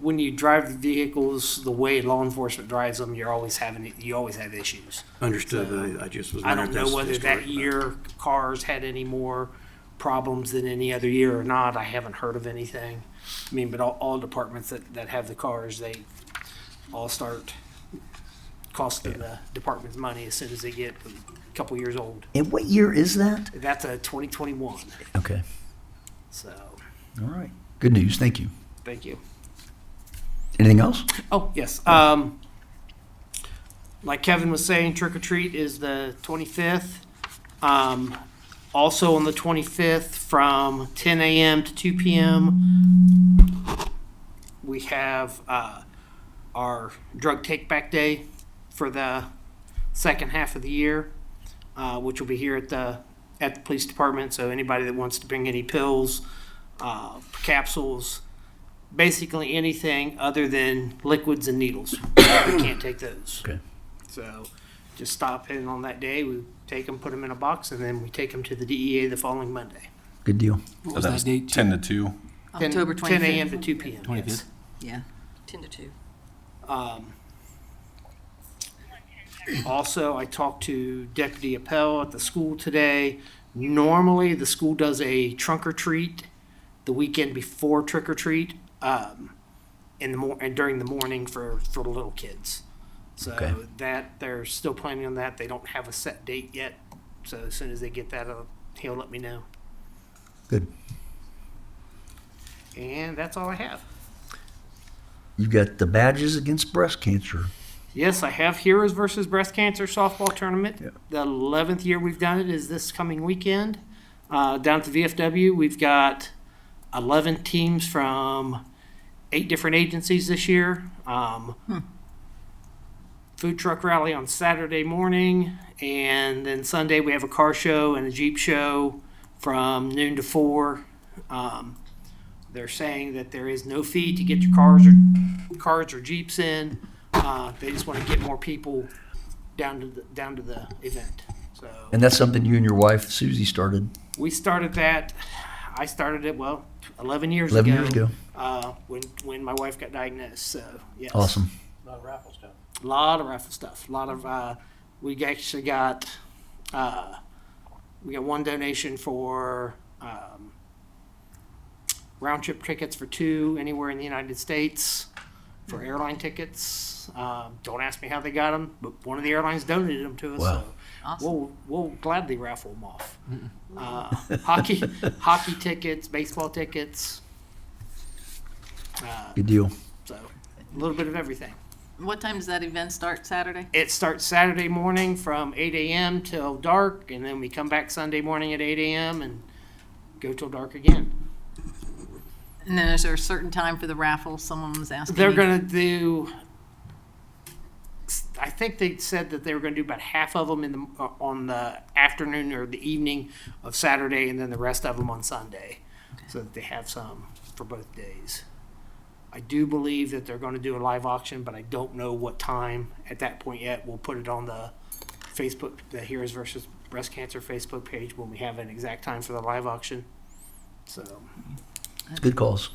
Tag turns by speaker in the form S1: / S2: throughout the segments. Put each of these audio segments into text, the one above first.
S1: when you drive the vehicles the way law enforcement drives them, you're always having, you always have issues.
S2: Understood, I, I just was
S1: I
S2: wondering.
S1: don't
S2: if
S1: know
S2: that's
S1: whether
S2: historic
S1: that
S2: or not.
S1: year cars had any more problems than any other year or not. I haven't heard of anything. I mean, but all, all departments that, that have the cars, they all start costing the department's money as soon as they get a couple years old.
S3: And what year is that?
S1: That's a twenty twenty-one,
S3: Okay.
S1: so,
S3: All right. Good news. Thank you.
S1: thank you.
S3: Anything else?
S1: Oh, yes. Um, like Kevin was saying, trick or treat is the twenty-fifth. Um, also on the twenty-fifth, from ten AM to two PM, we have, uh, our drug take-back day for the second half of the year, uh, which will be here at the, at the police department. So anybody that wants to bring any pills, uh, capsules, basically anything other than liquids and needles. we can't take those.
S3: Okay.
S1: So just stop in on that day. We take them, put them in a box, and then we take them to the DEA the following Monday.
S3: Good deal.
S4: What was that date?
S5: Ten to two.
S1: 10
S6: October
S1: 10 a.m.
S6: 25th.
S1: to 2 p.m. Yes.
S4: 25th.
S6: Yeah. 10 to 2.
S1: Um, also, I talked to Deputy Appel at the school today. Normally, the school does a trunk or treat the weekend before trick or treat um, in the mor- and during the morning for for the little kids. So
S3: Okay.
S1: that they're still planning on that. They don't have a set date yet. So as soon as they get that, uh, he'll let me know.
S3: Good.
S1: And that's all I have.
S3: You've got the badges against breast cancer.
S1: Yes, I have Heroes versus Breast Cancer softball tournament.
S3: Yeah.
S1: The eleventh year we've done it is this coming weekend. Uh, down at the VFW, we've got eleven teams from eight different agencies this year. Um, Food truck rally on Saturday morning, and then Sunday we have a car show and a Jeep show from noon to four. Um, they're saying that there is no fee to get your cars or cars or Jeeps in. Uh, they just want to get more people down to the, down to the event. So
S3: And that's something you and your wife Susie started
S1: we started that. I started it well, eleven years
S3: 11
S1: ago.
S3: years ago.
S1: Uh, when when my wife got diagnosed. So yes,
S3: Awesome.
S1: A lot of raffle stuff. A lot of uh, we actually got uh, we got one donation for um, round trip tickets for two anywhere in the United States
S3: Mm-hmm.
S1: for airline tickets. Um, don't ask me how they got them, but one of the airlines donated them to us.
S3: Wow.
S1: So
S6: Awesome.
S1: We'll we'll gladly raffle them off. Uh, hockey hockey tickets, baseball tickets. Uh,
S3: Good deal.
S1: so a little bit of everything.
S6: What time does that event start Saturday?
S1: It starts Saturday morning from 8 a.m. till dark, and then we come back Sunday morning at 8 a.m. and go till dark again.
S6: And then is there a certain time for the raffle? Someone was asking.
S1: They're
S6: me.
S1: going to do, I think they said that they were going to do about half of them in the, uh, on the afternoon or the evening of Saturday, and then the rest of them on Sunday, so that they have some for both days. I do believe that they're going to do a live auction, but I don't know what time at that point yet. We'll put it on the Facebook, the Heroes versus Breast Cancer Facebook page when we have an exact time for the live auction. So,
S3: It's good calls.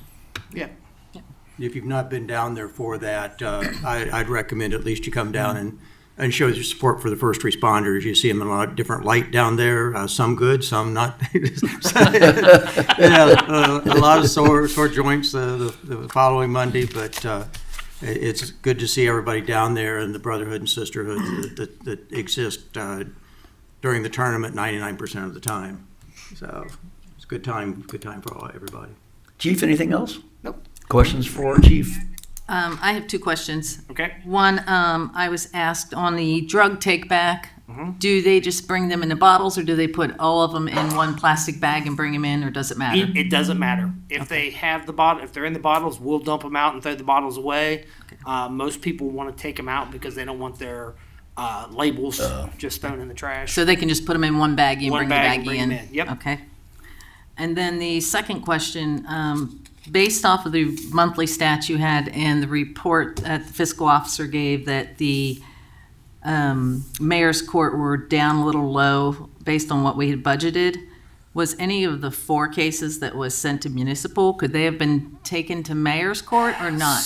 S1: yeah.
S2: If you've not been down there for that, uh, I, I'd recommend at least you come down and, and show your support for the first responders. You see them in a lot of different light down there, uh, some good, some not. Yeah, uh, a lot of sore, sore joints uh, the, the following Monday, but, uh, i- it's good to see everybody down there and the brotherhood and sisterhood that- that, that exist, uh, during the tournament ninety-nine percent of the time. So it's a good time, good time for all, everybody.
S3: Chief, anything else?
S1: Nope.
S3: Questions for our chief?
S6: Um, I have two questions.
S1: Okay.
S6: One, um, I was asked on the drug take back. Do they just bring them in the bottles or do they put all of them in one plastic bag and bring them in or does it matter?
S1: It, it doesn't matter. If they have the bottle, if they're in the bottles, we'll dump them out and throw the bottles away. Uh, most people want to take them out because they don't want their uh, labels just thrown in the trash.
S6: So they can just put them in one baggie and
S1: One
S6: bring
S1: bag and
S6: the baggie
S1: bring
S6: in?
S1: 'em in, yep.
S6: Okay. And then the second question, um, based off of the monthly stats you had and the report that the fiscal officer gave that the um, mayor's court were down a little low based on what we had budgeted, was any of the four cases that was sent to municipal, could they have been taken to mayor's court or not?